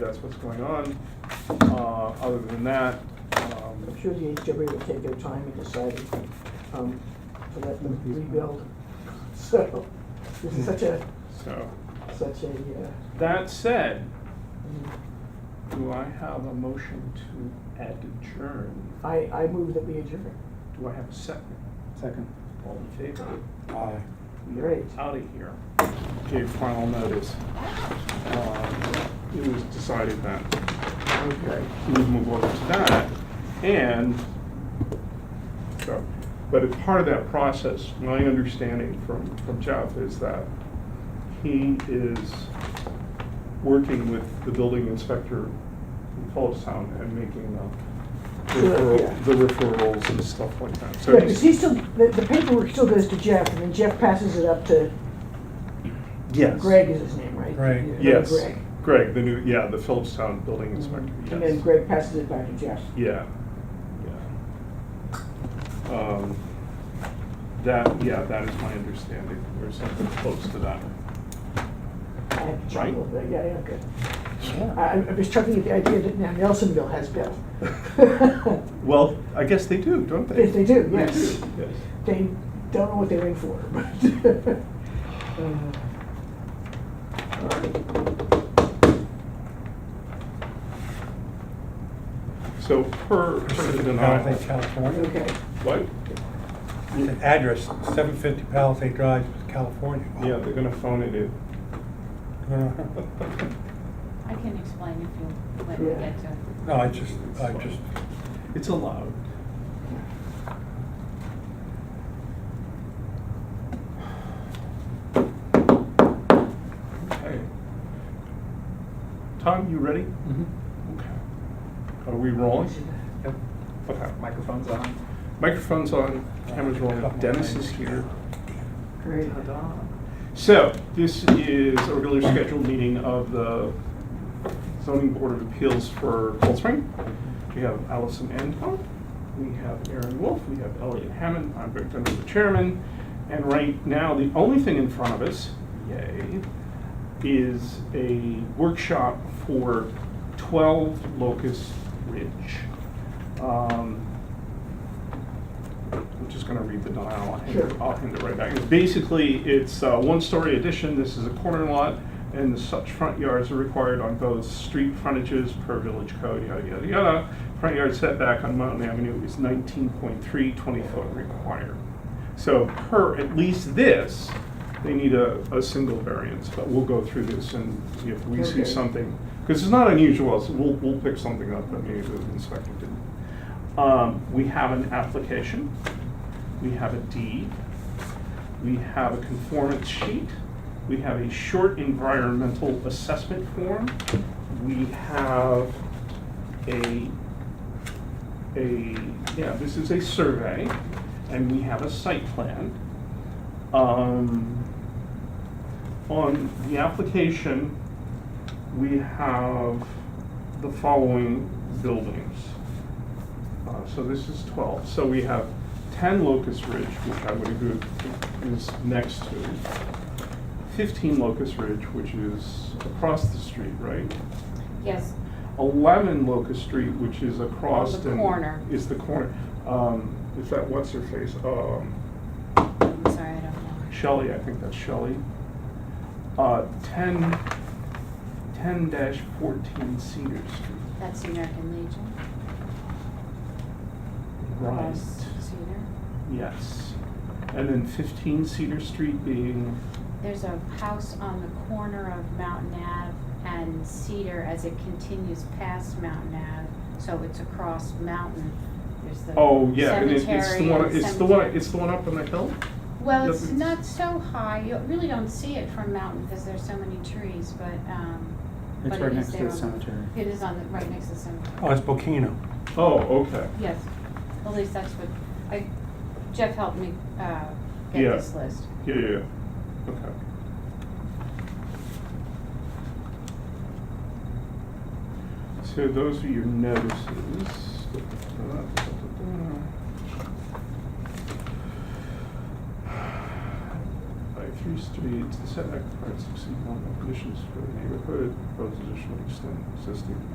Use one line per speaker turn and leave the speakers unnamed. that's what's going on. Uh, Other than that, um,
I'm sure the HW will take their time in deciding um, to let them rebuild. So, this is such a,
so,
such a, uh,
that said,
mm,
do I have a motion to adjourn?
I, I move that we adjourn.
Do I have a second?
Second.
All in favor?
Aye.
Great.
Out of here. Gave final notice. Uh, It was decided that,
Okay.
we move over to that, and, so, but as part of that process, my understanding from, from Jeff is that he is working with the building inspector in Town and making the
Sure, yeah.
referral- the referrals and stuff like that. So
Yeah, because
he's-
he still, the, the paperwork still goes to Jeff, and then Jeff passes it up to
Yes.
Greg is his name, right?
Greg.
Yeah,
Yes,
Greg.
Greg, the new, yeah, the Phillips Town Building Inspector, yes.
And then Greg passes it back to Jeff.
Yeah, yeah. Um, That, yeah, that is my understanding, or something close to that.
I have to chuckle, but yeah, yeah, good. I,
Yeah.
I I was chuckling at the idea that now Nelsonville has Bill.
Well, I guess they do, don't they?
Yes, they do, yes.
do, yes.
They don't know what they're in for, but. uh, all right.
So per, per the denial.
Palisade, California.
Okay,
What?
It's an address, seven fifty Palisade Drive, California.
Yeah, they're gonna phone it in.
I can explain if you let me
Yeah.
get to it.
No, I just, I just,
It's allowed. Okay. Tom, you ready?
Mm-hmm.
Okay. Are we rolling?
Yep,
Okay.
microphone's on.
Microphone's on, camera's rolling, Dennis is here.
great.
So, this is a regularly scheduled meeting of the zoning board of appeals for Cold Spring. We have Allison Anton, we have Aaron Wolf, we have Elliot Hammond, I'm Rick Dunn, the chairman. And right now, the only thing in front of us, yay, is a workshop for 12 Locust Ridge. Um, I'm just gonna read the denial, I'll hand it,
Sure.
I'll hand it right back. Basically, it's a one-story addition, this is a corner lot, and such front yards are required on both street frontages per village code, yada, yada, yada. Front yard setback on Mountain Avenue is 19.3, 20-foot required. So per at least this, they need a, a single variance, but we'll go through this and see if we see
Okay.
something. Because it's not unusual, so we'll, we'll pick something up that maybe the inspector didn't. Um, we have an application, we have a deed, we have a conformance sheet, we have a short environmental assessment form, we have a a, yeah, this is a survey, and we have a site plan. Um, On the application, we have the following buildings. Uh, So this is 12. So we have 10 Locust Ridge, which I would agree is next to. 15 Locust Ridge, which is across the street, right?
Yes,
11 Locust Street, which is across.
The
and-
corner.
Is the corner. Um, Is that, what's her face? Um,
I'm sorry, I don't know.
Shelley, I think that's Shelley. Uh, 10, 10-14 Cedar Street.
That's the American Legion.
Right.
across Cedar.
Yes. And then 15 Cedar Street being,
There's a house on the corner of Mountain Ave and Cedar as it continues past Mountain Ave, so it's across Mountain. There's the
oh, yeah, and it- it's the
cemetery
one,
and
it's the one,
cemetery.
it's the one up on the hill?
Well,
Yep,
it's
it's-
not so high, you really don't see it from Mountain because there's so many trees, but, um,
It's
but
right
it is
next to
there
the
on-
cemetery.
It is on the, right next to the cemetery.
oh, it's Bokino.
Oh, okay.
Yes, at least that's what, I, Jeff helped me, uh, get
Yeah.
this list.
Yeah, yeah, yeah. Okay. So those are your notices. I three streets, the setback requirements exceed one of the conditions for the neighborhood, proposed additional extent existing